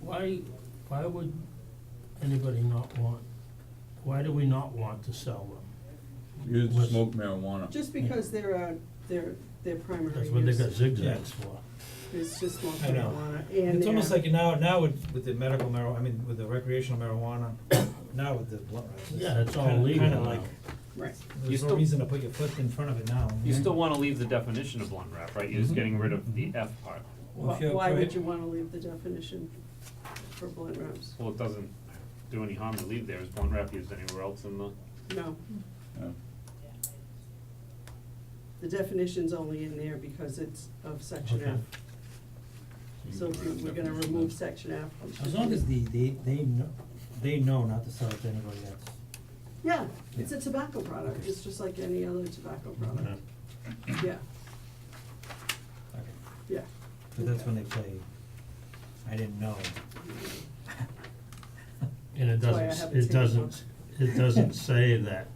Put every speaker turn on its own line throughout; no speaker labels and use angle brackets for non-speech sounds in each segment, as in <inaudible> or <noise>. why, why would anybody not want, why do we not want to sell them?
You
Was-
smoke marijuana.
Just because they're, uh, they're, they're primary
That's what they got
use,
zigzags for.
it's just smoke
I know.
marijuana, and
It's almost
they're-
like now, now with, with the medical marijuana, I mean, with the recreational marijuana, now with the blunt wraps.
Yeah, it's all
kinda-
legal
Kinda
now.
like,
Right,
You
there's no
still-
reason to put your foot in front of it now.
You still wanna leave the definition of blunt wrap, right, you're just
Mhm.
getting rid of the F part,
Well, if
Wh-
you're
why would
prohi-
you wanna leave the definition for blunt wraps?
well, it doesn't do any harm to leave there, is blunt wrap used anywhere else in the,
No,
Yeah.
the definition's only in there because it's of section
Okay.
F, so if we- we're gonna remove section F. we should
As long
do-
as the, they, they know, they know not to sell it to anybody else.
Yeah, it's a tobacco product, it's just like any other tobacco product, yeah,
Okay.
yeah.
But that's when they play, I didn't know.
And it
That's why I
doesn't,
haven't
it
taken
doesn't, it doesn't say that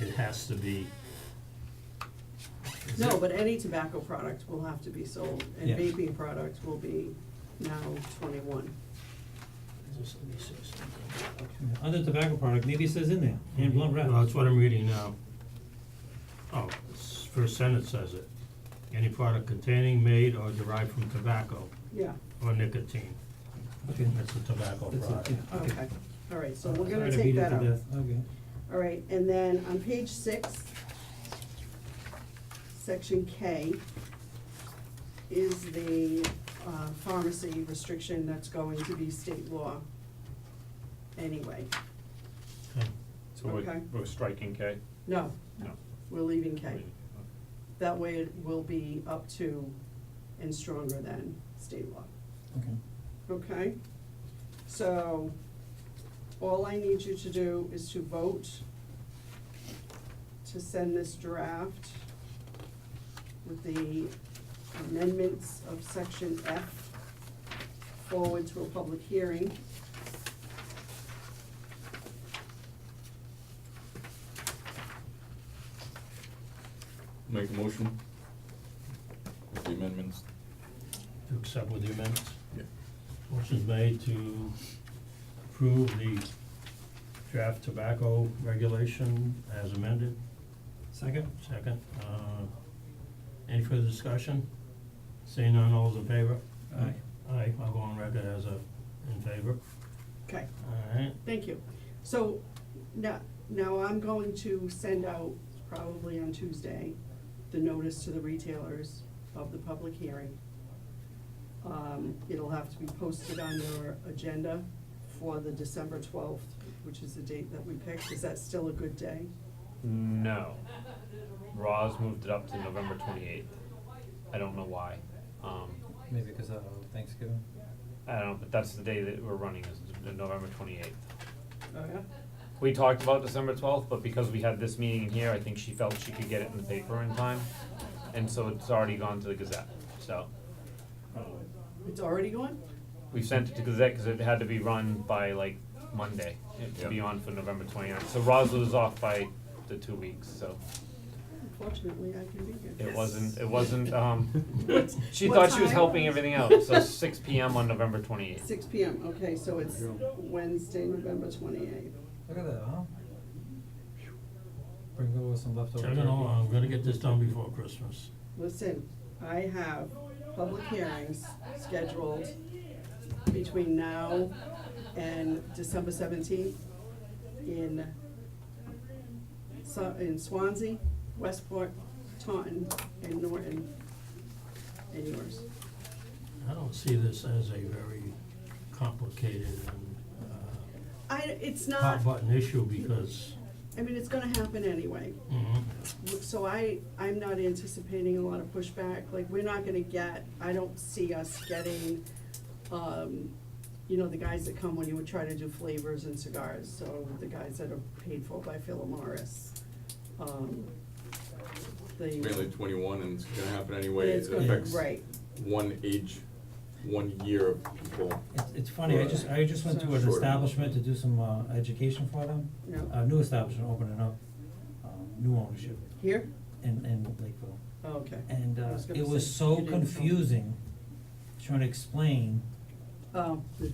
it has to be. Is
No,
it-
but any tobacco product will have to be sold, and
Yeah.
vaping products will be now twenty-one.
Just let me say something.
Other tobacco product, maybe it says in there, and blunt wrap.
Mm-hmm. Well, that's what I'm reading now. Oh, s- first sentence says it. Any product containing, made, or derived from tobacco
Yeah,
or nicotine.
Okay.
That's a tobacco
That's it,
product.
yeah,
okay, all right, so we're
Sorry
gonna
to
take
beat it
that
to
out.
death. Okay.
All right, and then on page six, section K is the uh, pharmacy restriction that's going to be state law anyway.
Okay.
so we're,
Okay.
we're striking K,
No,
no.
we're leaving K.
leaving.
That way it will be up to and stronger than state law.
Okay.
Okay, so all I need you to do is to vote to send this draft with the amendments of section F forward to a public hearing.
Make a motion. With the amendments.
To accept with the amendments.
Yeah.
Motion's made to approve the draft tobacco regulation as amended.
Second?
Second. Uh, Any further discussion? Seeing none, all those in favor?
Aye.
Aye, I'll go on record as a, in favor.
Okay,
All right.
thank you. So now, now I'm going to send out probably on Tuesday, the notice to the retailers of the public hearing. Um, it'll have to be posted on your agenda for the December twelfth, which is the date that we picked. Is that still a good day?
No. Roz moved it up to November twenty-eighth. I don't know why. Um,
Maybe because
uh,
of Thanksgiving.
I don't, but that's the day that we're running is the November twenty-eighth.
Oh, yeah?
We talked about December twelfth, but because we had this meeting in here, I think she felt she could get it in the paper in time. And so it's already gone to the Gazette, so.
It's already going?
We sent it to Gazette because it had to be run by like Monday, it to be
Yeah.
on for November twenty-ninth. So Roz was off by the two weeks, so
Fortunately, I can be here.
it wasn't, it wasn't, um,
<laughs> What's-
<laughs> she
what
thought she was
time?
helping everything out,
<laughs>
so six P M on November twenty-eighth.
Six P M, okay, so it's Wednesday, November twenty-eighth.
Look at that, huh? Bring over some leftover
Chugging
turkey.
along, I'm gonna get this done before Christmas.
Listen, I have public hearings scheduled between now and December seventeenth in Swa- in Swansea, Westport, Taunton, and Norton, and yours.
I don't see this as a very complicated and
I, it's
uh,
not,
hot button issue because,
I mean, it's gonna happen anyway.
mhm,
So I, I'm not anticipating a lot of pushback, like, we're not gonna get, I don't see us getting, um, you know, the guys that come when you would try to do flavors and cigars, so the guys that are paid for by Philip Morris. Um, the.
mainly twenty-one, and it's gonna happen anyway,
It's
it
gonna-
affects
Right,
one age, one year of people.
It's, it's funny, I just, I just went to an
Sure.
establishment to do some, uh, education for them,
yeah,
a new establishment opening up, um, new ownership
here,
in, in Lakeville.
Oh, okay,
And,
I
uh,
was gonna
it was
say,
so
you didn't tell me.
confusing, trying to explain
oh, the